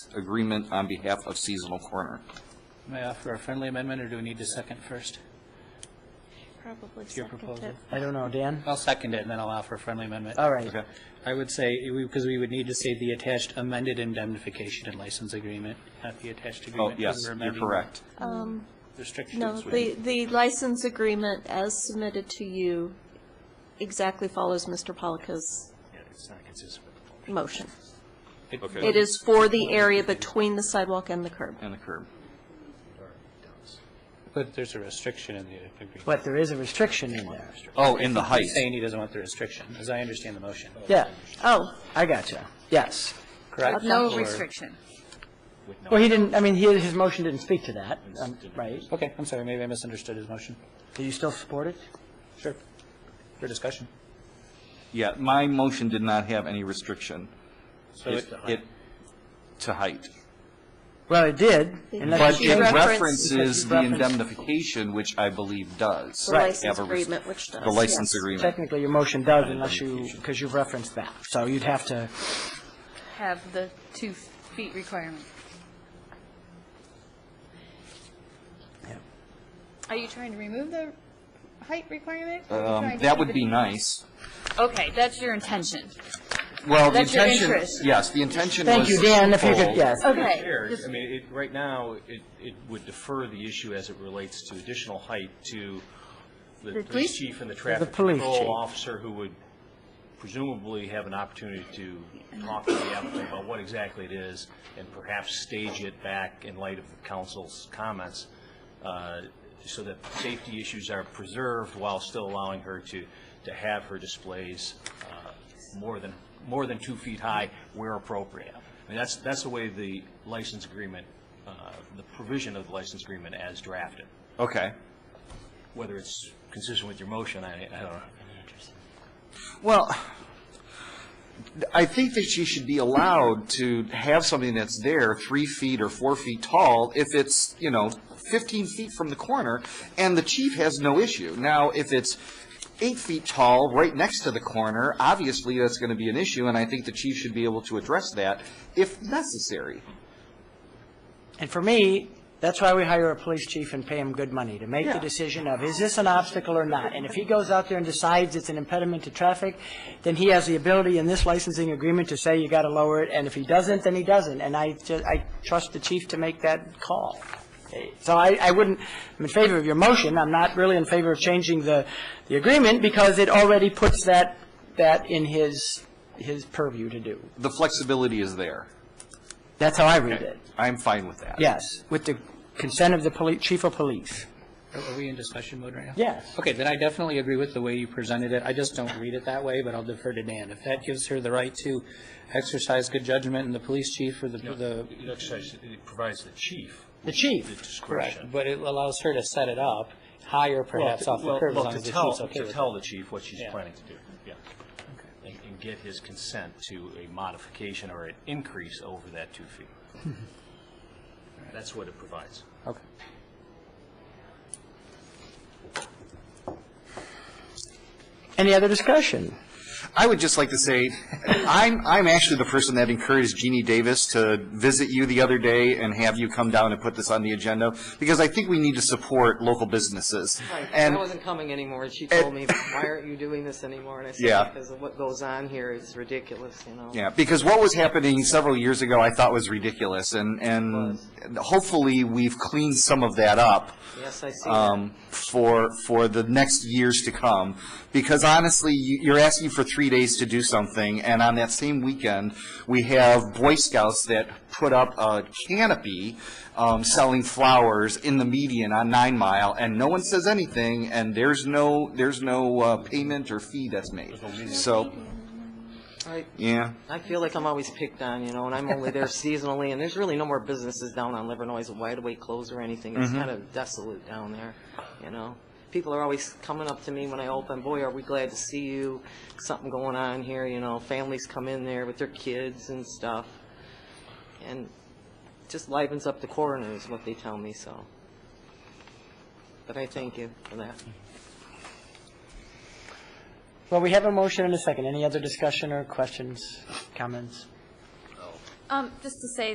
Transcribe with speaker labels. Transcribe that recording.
Speaker 1: agreement on behalf of Seasonal Corner.
Speaker 2: May I offer a friendly amendment, or do we need to second first?
Speaker 3: Probably
Speaker 2: Your
Speaker 3: second
Speaker 2: proposal?
Speaker 3: it.
Speaker 4: I don't know, Dan?
Speaker 2: I'll second it, and then I'll offer a friendly amendment.
Speaker 4: All right.
Speaker 1: Okay.
Speaker 2: I would say, because we would need to say the attached amended indemnification and license agreement, not the attached
Speaker 1: Oh,
Speaker 2: agreement. 'cause
Speaker 1: yes,
Speaker 2: we're
Speaker 1: you're
Speaker 2: amending
Speaker 1: correct.
Speaker 3: No,
Speaker 2: Restrictions.
Speaker 3: the, the license agreement as submitted to you exactly follows Mr. Polika's
Speaker 2: It's not consistent with the
Speaker 3: motion.
Speaker 1: Okay.
Speaker 3: It is for the area between the sidewalk and the curb.
Speaker 1: And the curb.
Speaker 2: But there's a restriction in the agreement.
Speaker 4: But there is a restriction in there.
Speaker 1: Oh, in the height.
Speaker 2: He's saying he doesn't want the restriction, as I understand the motion.
Speaker 4: Yeah,
Speaker 3: Oh,
Speaker 4: I gotcha. Yes.
Speaker 2: Correct?
Speaker 5: No
Speaker 2: Or-
Speaker 5: restriction.
Speaker 4: Well, he didn't, I mean, he, his motion didn't speak to that, um, right?
Speaker 2: Okay, I'm sorry, maybe I misunderstood his motion.
Speaker 4: Do you still support it?
Speaker 2: Sure. For discussion.
Speaker 1: Yeah, my motion did not have any restriction.
Speaker 2: So it-
Speaker 1: It- To height.
Speaker 4: Well, it did, unless
Speaker 1: But
Speaker 4: you
Speaker 1: it
Speaker 4: changed,
Speaker 3: referenced-
Speaker 1: references the
Speaker 4: referenced-
Speaker 1: indemnification, which I believe does.
Speaker 3: the
Speaker 1: have a
Speaker 3: license
Speaker 1: rest-
Speaker 3: agreement, which does.
Speaker 1: The license
Speaker 3: yes.
Speaker 1: agreement.
Speaker 4: technically your motion does unless you, because you've referenced that. So you'd have to,
Speaker 5: Have the two feet requirement.
Speaker 4: yeah.
Speaker 5: Are you trying to remove the height requirement? or are you trying
Speaker 1: Um,
Speaker 5: to
Speaker 1: That
Speaker 5: keep
Speaker 1: would
Speaker 5: it-
Speaker 1: be nice.
Speaker 5: Okay, that's your intention.
Speaker 1: Well, the
Speaker 5: That's your
Speaker 1: intention,
Speaker 5: interest.
Speaker 1: yes, the intention was.
Speaker 4: Thank you, Dan, if you could,
Speaker 1: twofold.
Speaker 4: yes.
Speaker 5: Okay.
Speaker 6: Chair,
Speaker 5: just-
Speaker 6: I mean, it, right now, it, it would defer the issue as it relates to additional height to the
Speaker 5: police-
Speaker 6: police chief and the traffic
Speaker 4: police chief.
Speaker 6: control officer who would presumably have an opportunity to talk to the applicant about what exactly it is and perhaps stage it back in light of the council's comments uh, so that safety issues are preserved while still allowing her to, to have her displays uh, more than, more than two feet high where appropriate. I mean, that's, that's the way the license agreement, uh, the provision of the license agreement as drafted.
Speaker 1: Okay.
Speaker 6: Whether it's consistent with your motion, I, I don't know.
Speaker 1: Well, I think that she should be allowed to have something that's there three feet or four feet tall if it's, you know, 15 feet from the corner, and the chief has no issue. Now, if it's eight feet tall, right next to the corner, obviously that's going to be an issue, and I think the chief should be able to address that if necessary.
Speaker 4: And for me, that's why we hire a police chief and pay him good money, to make the
Speaker 1: Yeah.
Speaker 4: decision of, is this an obstacle or not? And if he goes out there and decides it's an impediment to traffic, then he has the ability in this licensing agreement to say you got to lower it, and if he doesn't, then he doesn't. And I, ju- I trust the chief to make that call. So I, I wouldn't, I'm in favor of your motion, I'm not really in favor of changing the, the agreement, because it already puts that, that in his, his purview to do.
Speaker 1: The flexibility is there.
Speaker 4: That's how I read it.
Speaker 1: I'm fine with that.
Speaker 4: Yes, with the consent of the poli, chief of police.
Speaker 2: Are are we in discussion mode right now?
Speaker 4: Yes.
Speaker 2: Okay, then I definitely agree with the way you presented it. I just don't read it that way, but I'll defer to Dan. If that gives her the right to exercise good judgment and the police chief or the, the,
Speaker 6: It exercises- it provides the chief
Speaker 4: The
Speaker 6: the
Speaker 4: chief.
Speaker 2: correct,
Speaker 6: discretion.
Speaker 2: but it allows her to set it up higher perhaps off the
Speaker 6: Well,
Speaker 2: curb as
Speaker 6: well,
Speaker 2: long
Speaker 6: to
Speaker 2: as the
Speaker 6: tell-
Speaker 2: chief's okay with
Speaker 6: To
Speaker 2: it.
Speaker 6: tell the chief what she's
Speaker 2: Yeah.
Speaker 6: planning to do, yeah. And, and get his consent to a modification or an increase over that two feet. That's what it provides.
Speaker 2: Okay.
Speaker 4: Any other discussion?
Speaker 1: I would just like to say, I'm, I'm actually the person that encouraged Jeannie Davis to visit you the other day and have you come down and put this on the agenda, because I think we need to support local businesses.
Speaker 7: Right,
Speaker 1: And
Speaker 7: I wasn't coming anymore, and she told me, why aren't you doing this anymore? And I
Speaker 1: Yeah.
Speaker 7: said, because of what goes on here is ridiculous, you know?
Speaker 1: Yeah, because what was happening several years ago, I thought was ridiculous, and, and hopefully, we've cleaned some of that up.
Speaker 7: Yes, I see that.
Speaker 1: um, for, for the next years to come. Because honestly, you- you're asking for three days to do something, and on that same weekend, we have Boy Scouts that put up a canopy um, selling flowers in the median on Nine Mile, and no one says anything, and there's no, there's no uh, payment or fee that's made. So,
Speaker 7: I-
Speaker 1: yeah.
Speaker 7: I feel like I'm always picked on, you know, and I'm only there seasonally, and there's really no more businesses down on Livernois, Wide Awake closed or anything. It's kind of desolate down there, you know? People are always coming up to me when I open, boy, are we glad to see you, something going on here, you know? Families come in there with their kids and stuff, and just livens up the corner is what they tell me, so. But I thank you for that.
Speaker 4: Well, we have a motion and a second. Any other discussion or questions, comments?
Speaker 5: Um, just to say